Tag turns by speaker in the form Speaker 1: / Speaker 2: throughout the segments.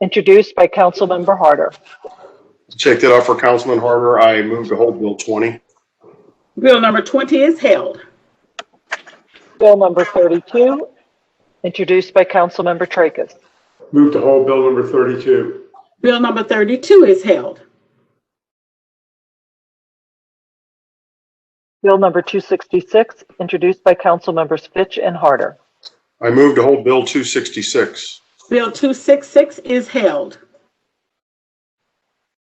Speaker 1: introduced by Councilmember Harder.
Speaker 2: Check that off for Councilman Harder. I move to hold Bill 20.
Speaker 3: Bill number 20 is held.
Speaker 1: Bill number 32, introduced by Councilmember Tracus.
Speaker 4: Move to hold bill number 32.
Speaker 3: Bill number 32 is held.
Speaker 1: Bill number 266, introduced by Councilmembers Fitch and Harder.
Speaker 2: I move to hold Bill 266.
Speaker 3: Bill 266 is held.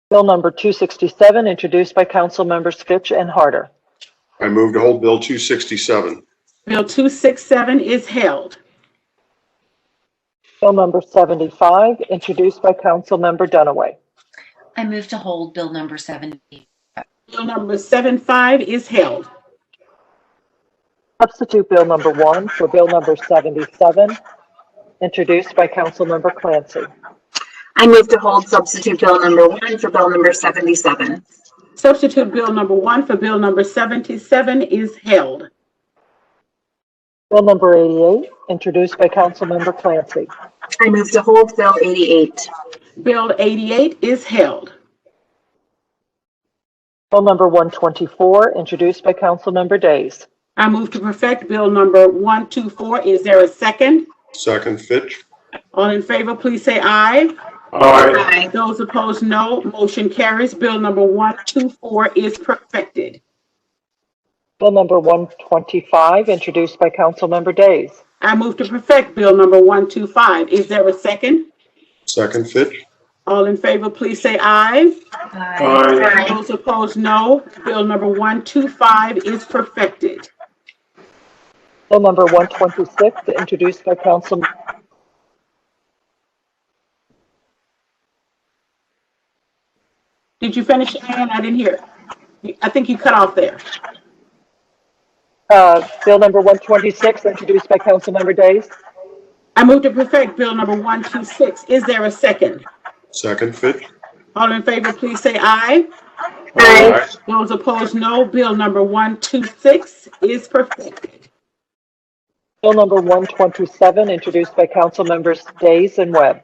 Speaker 1: Bill number 267, introduced by Councilmembers Fitch and Harder.
Speaker 2: I move to hold Bill 267.
Speaker 3: Bill 267 is held.
Speaker 1: Bill number 75, introduced by Councilmember Dunaway.
Speaker 5: I move to hold Bill number 70.
Speaker 3: Bill number 75 is held.
Speaker 1: Substitute Bill number 1 for Bill number 77, introduced by Councilmember Clancy.
Speaker 6: I move to hold substitute bill number one for bill number 77.
Speaker 3: Substitute Bill number 1 for Bill number 77 is held.
Speaker 1: Bill number 88, introduced by Councilmember Clancy.
Speaker 6: I move to hold bill 88.
Speaker 3: Bill 88 is held.
Speaker 1: Bill number 124, introduced by Councilmember Days.
Speaker 3: I move to perfect Bill number 124. Is there a second?
Speaker 2: Second, Fitch.
Speaker 3: All in favor, please say aye.
Speaker 4: Aye.
Speaker 6: Aye.
Speaker 3: Those opposed, no. Motion carries. Bill number 124 is perfected.
Speaker 1: Bill number 125, introduced by Councilmember Days.
Speaker 3: I move to perfect Bill number 125. Is there a second?
Speaker 2: Second, Fitch.
Speaker 3: All in favor, please say aye.
Speaker 4: Aye.
Speaker 3: Those opposed, no. Bill number 125 is perfected.
Speaker 1: Bill number 126, introduced by Council,
Speaker 3: Did you finish, Ann? I didn't hear. I think you cut off there.
Speaker 1: uh, Bill number 126, introduced by Councilmember Days.
Speaker 3: I move to perfect Bill number 126. Is there a second?
Speaker 2: Second, Fitch.
Speaker 3: All in favor, please say aye.
Speaker 6: Aye.
Speaker 3: Those opposed, no. Bill number 126 is perfected.
Speaker 1: Bill number 127, introduced by Councilmembers Days and Webb.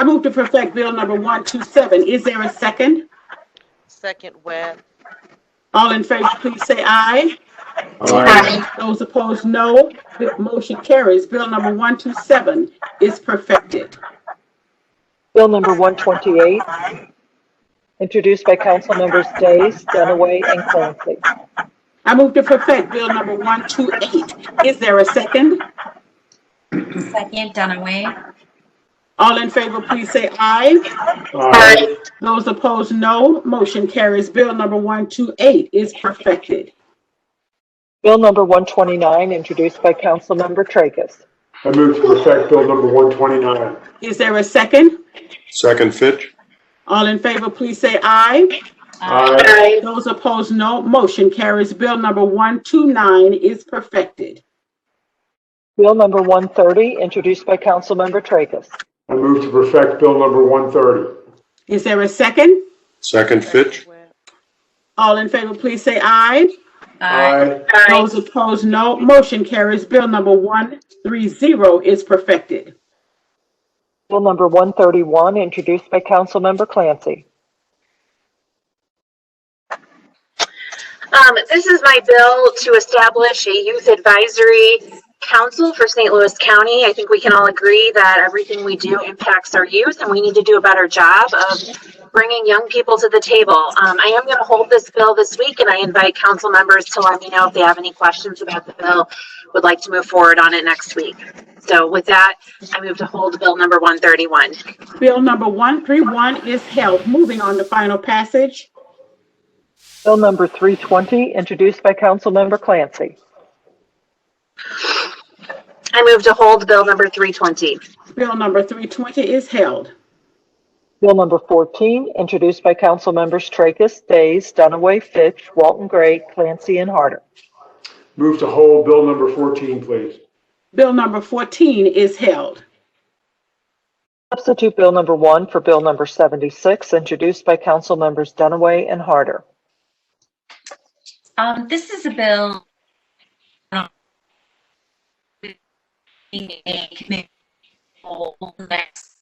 Speaker 3: I move to perfect Bill number 127. Is there a second?
Speaker 7: Second web,
Speaker 3: All in favor, please say aye.
Speaker 4: Aye.
Speaker 3: Those opposed, no. The motion carries. Bill number 127 is perfected.
Speaker 1: Bill number 128, introduced by Councilmembers Days, Dunaway, and Clancy.
Speaker 3: I move to perfect Bill number 128. Is there a second?
Speaker 5: Second, Dunaway.
Speaker 3: All in favor, please say aye.
Speaker 4: Aye.
Speaker 3: Those opposed, no. Motion carries. Bill number 128 is perfected.
Speaker 1: Bill number 129, introduced by Councilmember Tracus.
Speaker 4: I move to perfect bill number 129.
Speaker 3: Is there a second?
Speaker 2: Second, Fitch.
Speaker 3: All in favor, please say aye.
Speaker 4: Aye.
Speaker 3: Those opposed, no. Motion carries. Bill number 129 is perfected.
Speaker 1: Bill number 130, introduced by Councilmember Tracus.
Speaker 4: I move to perfect bill number 130.
Speaker 3: Is there a second?
Speaker 2: Second, Fitch.
Speaker 7: web,
Speaker 3: All in favor, please say aye.
Speaker 4: Aye.
Speaker 3: Those opposed, no. Motion carries. Bill number 130 is perfected.
Speaker 1: Bill number 131, introduced by Councilmember Clancy.
Speaker 8: Um, this is my bill to establish a youth advisory council for St. Louis County. I think we can all agree that everything we do impacts our youth and we need to do a better job of bringing young people to the table. Um, I am going to hold this bill this week and I invite council members to let me know if they have any questions about the bill, would like to move forward on it next week. So with that, I move to hold bill number 131.
Speaker 3: Bill number 131 is held. Moving on to final passage.
Speaker 1: Bill number 320, introduced by Councilmember Clancy.
Speaker 8: I move to hold bill number 320.
Speaker 3: Bill number 320 is held.
Speaker 1: Bill number 14, introduced by Councilmembers Tracus, Days, Dunaway, Fitch, Walton Gray, Clancy, and Harder.
Speaker 4: Move to hold bill number 14, please.
Speaker 3: Bill number 14 is held.
Speaker 1: Substitute Bill number 1 for Bill number 76, introduced by Councilmembers Dunaway and Harder.
Speaker 5: Um, this is a bill. Next